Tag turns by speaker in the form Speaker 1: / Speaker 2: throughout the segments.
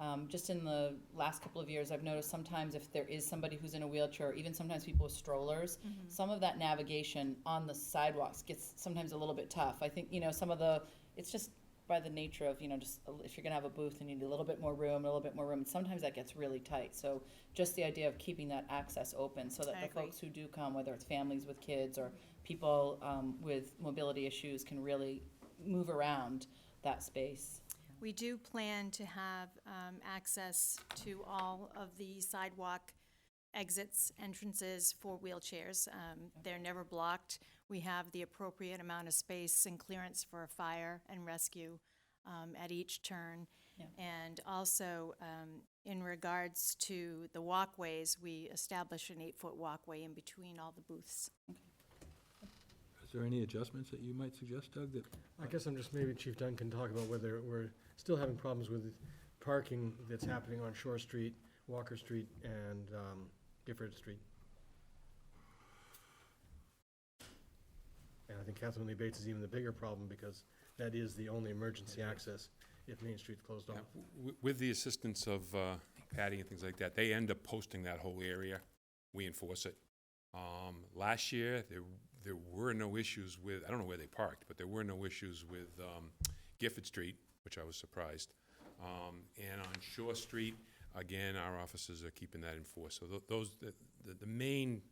Speaker 1: um, just in the last couple of years, I've noticed sometimes if there is somebody who's in a wheelchair, or even sometimes people with strollers,
Speaker 2: Mm-hmm.
Speaker 1: some of that navigation on the sidewalks gets sometimes a little bit tough. I think, you know, some of the, it's just by the nature of, you know, just a- if you're gonna have a booth and you need a little bit more room, a little bit more room, and sometimes that gets really tight. So just the idea of keeping that access open so that
Speaker 2: I
Speaker 1: the
Speaker 2: agree.
Speaker 1: folks who do come, whether it's families with kids or people, um, with mobility issues can really move around that space.
Speaker 2: We do plan to have um, access to all of the sidewalk exits, entrances for wheelchairs. Um, They're never blocked. We have the appropriate amount of space and clearance for fire and rescue um, at each turn. And also, um, in regards to the walkways, we establish an eight-foot walkway in between all the booths.
Speaker 3: Is there any adjustments that you might suggest, Doug, that,
Speaker 4: I guess I'm just, maybe Chief Dunn can talk about whether we're still having problems with parking that's happening on Shore Street, Walker Street, and um, Gifford Street. And I think Catherine Lee Bates is even the bigger problem, because that is the only emergency access if Main Street's closed off.
Speaker 5: Yeah, w- With the assistance of uh, Patty and things like that, they end up posting that whole area. We enforce it. Um, Last year, there, there were no issues with, I don't know where they parked, but there were no issues with um, Gifford Street, which I was surprised. Um, And on Shore Street, again, our officers are keeping that enforced. So tho- those, the, the- the main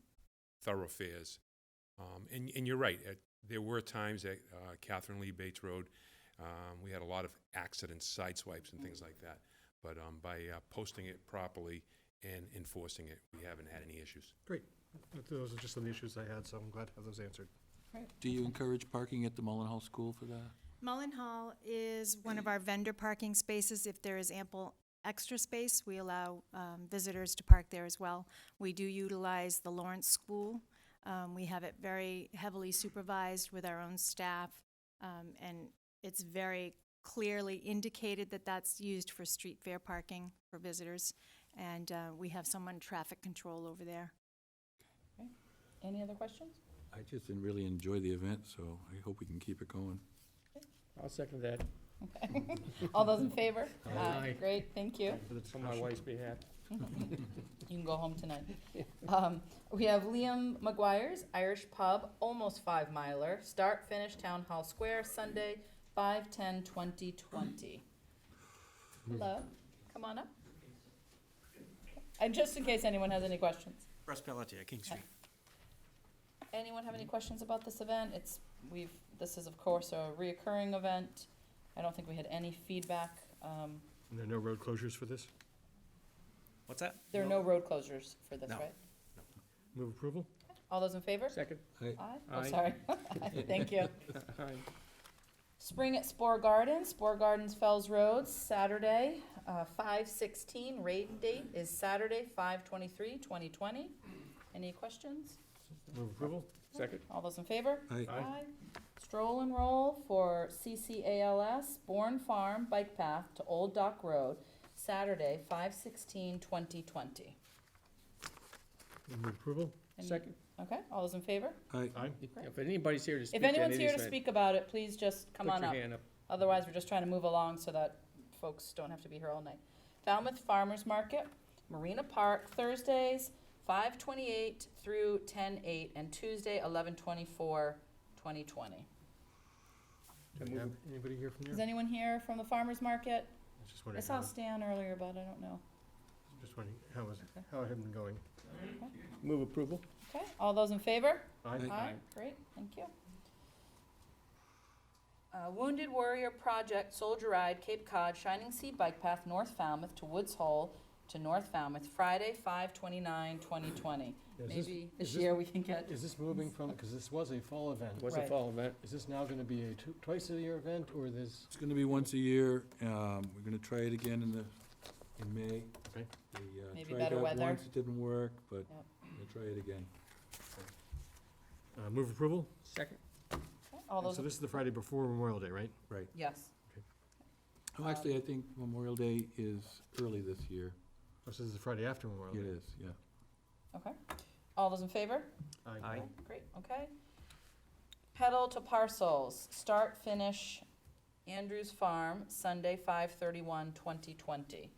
Speaker 5: thoroughfares. Um, And, and you're right, at- there were times at uh, Catherine Lee Bates Road, um, we had a lot of accidents, side swipes and things like that. But um, by uh, posting it properly and enforcing it, we haven't had any issues.
Speaker 4: Great, But those are just some of the issues I had, so I'm glad to have those answered.
Speaker 3: do you encourage parking at the Mullen Hall School for that?
Speaker 2: Mullen Hall is one of our vendor parking spaces. If there is ample extra space, we allow um, visitors to park there as well. We do utilize the Lawrence School. Um, We have it very heavily supervised with our own staff, um, and it's very clearly indicated that that's used for street fair parking for visitors, and uh, we have someone traffic control over there.
Speaker 1: Any other questions?
Speaker 3: I just didn't really enjoy the event, so I hope we can keep it going.
Speaker 6: I'll second that,
Speaker 1: All those in favor?
Speaker 4: Aye. Aye.
Speaker 1: Great, thank you.
Speaker 4: For the
Speaker 6: on my
Speaker 4: discussion.
Speaker 6: wife's behalf.
Speaker 1: You can go home tonight. Um, we have Liam McGuire's Irish Pub, almost five miler, start, finish, Town Hall Square, Sunday, five, ten, twenty, twenty. Hello, come on up. And just in case anyone has any questions.
Speaker 7: Russ Pelletier, King Street.
Speaker 1: Anyone have any questions about this event? It's, we've, this is of course a reoccurring event. I don't think we had any feedback. Um,
Speaker 4: And there are no road closures for this?
Speaker 7: What's that?
Speaker 1: there are no road closures for this,
Speaker 7: No.
Speaker 1: right?
Speaker 4: Move approval?
Speaker 1: All those in favor?
Speaker 6: Second,
Speaker 1: Aye, oh,
Speaker 6: Aye.
Speaker 1: sorry. Thank you.
Speaker 6: aye.
Speaker 1: Spring at Spore Gardens, Spore Gardens Fells Road, Saturday, uh, five sixteen, rain date is Saturday, five twenty-three, twenty twenty. Any questions?
Speaker 4: Move approval?
Speaker 6: second,
Speaker 1: All those in favor?
Speaker 3: Aye.
Speaker 4: Aye.
Speaker 1: Stroll and roll for CCALS Bourne Farm Bike Path to Old Dock Road, Saturday, five sixteen, twenty twenty.
Speaker 4: Move approval?
Speaker 6: second.
Speaker 1: Okay, all those in favor?
Speaker 3: Aye.
Speaker 4: Aye.
Speaker 6: If anybody's here to
Speaker 1: If
Speaker 6: speak to any of
Speaker 1: anyone's
Speaker 6: these
Speaker 1: here to
Speaker 6: things,
Speaker 1: speak about it, please just come on up.
Speaker 6: Put your hand up.
Speaker 1: Otherwise, we're just trying to move along so that folks don't have to be here all night. Falmouth Farmers Market, Marina Park, Thursdays, five twenty-eight through ten eight, and Tuesday, eleven twenty-four, twenty twenty.
Speaker 4: Do we have Anybody here from
Speaker 1: Is
Speaker 4: there?
Speaker 1: anyone here from the farmers market?
Speaker 4: was
Speaker 1: I
Speaker 4: just wondering
Speaker 1: saw
Speaker 4: how-
Speaker 1: Stan earlier, but I don't know.
Speaker 4: Just wondering, how was, how had it been going?
Speaker 6: Move approval,
Speaker 1: Okay, all those in favor?
Speaker 4: Aye.
Speaker 1: Aye, great, thank you. Uh, Wounded Warrior Project Soldier Ride Cape Cod Shining Sea Bike Path North Falmouth to Woods Hole to North Falmouth, Friday, five twenty-nine, twenty twenty.
Speaker 4: Is this-
Speaker 1: Maybe this
Speaker 4: is this-
Speaker 1: year we can get,
Speaker 4: Is this moving from, because this was a fall event,
Speaker 6: was the
Speaker 1: Right.
Speaker 6: fall event.
Speaker 4: is this now gonna be a tw- twice a year event, or this?
Speaker 3: It's gonna be once a year, um, we're gonna try it again in the, in May.
Speaker 4: Okay.
Speaker 3: We, uh,
Speaker 1: Maybe
Speaker 3: tried
Speaker 1: better
Speaker 3: that
Speaker 1: weather.
Speaker 3: Once it didn't work, but
Speaker 1: Yep.
Speaker 3: we'll try it again.
Speaker 4: Uh, move approval?
Speaker 6: Second,
Speaker 1: all
Speaker 4: And
Speaker 1: those,
Speaker 4: So this is the Friday before Memorial Day, right?
Speaker 1: yes, Um,
Speaker 3: Oh, actually, I think Memorial Day is early this year.
Speaker 4: Or This is the Friday after Memorial
Speaker 3: It
Speaker 4: Day?
Speaker 3: is, yeah.
Speaker 1: okay. All those in favor?
Speaker 7: Aye.
Speaker 1: Great, okay. Pedal to Parcels, start, finish, Andrews Farm, Sunday, five thirty-one, twenty twenty.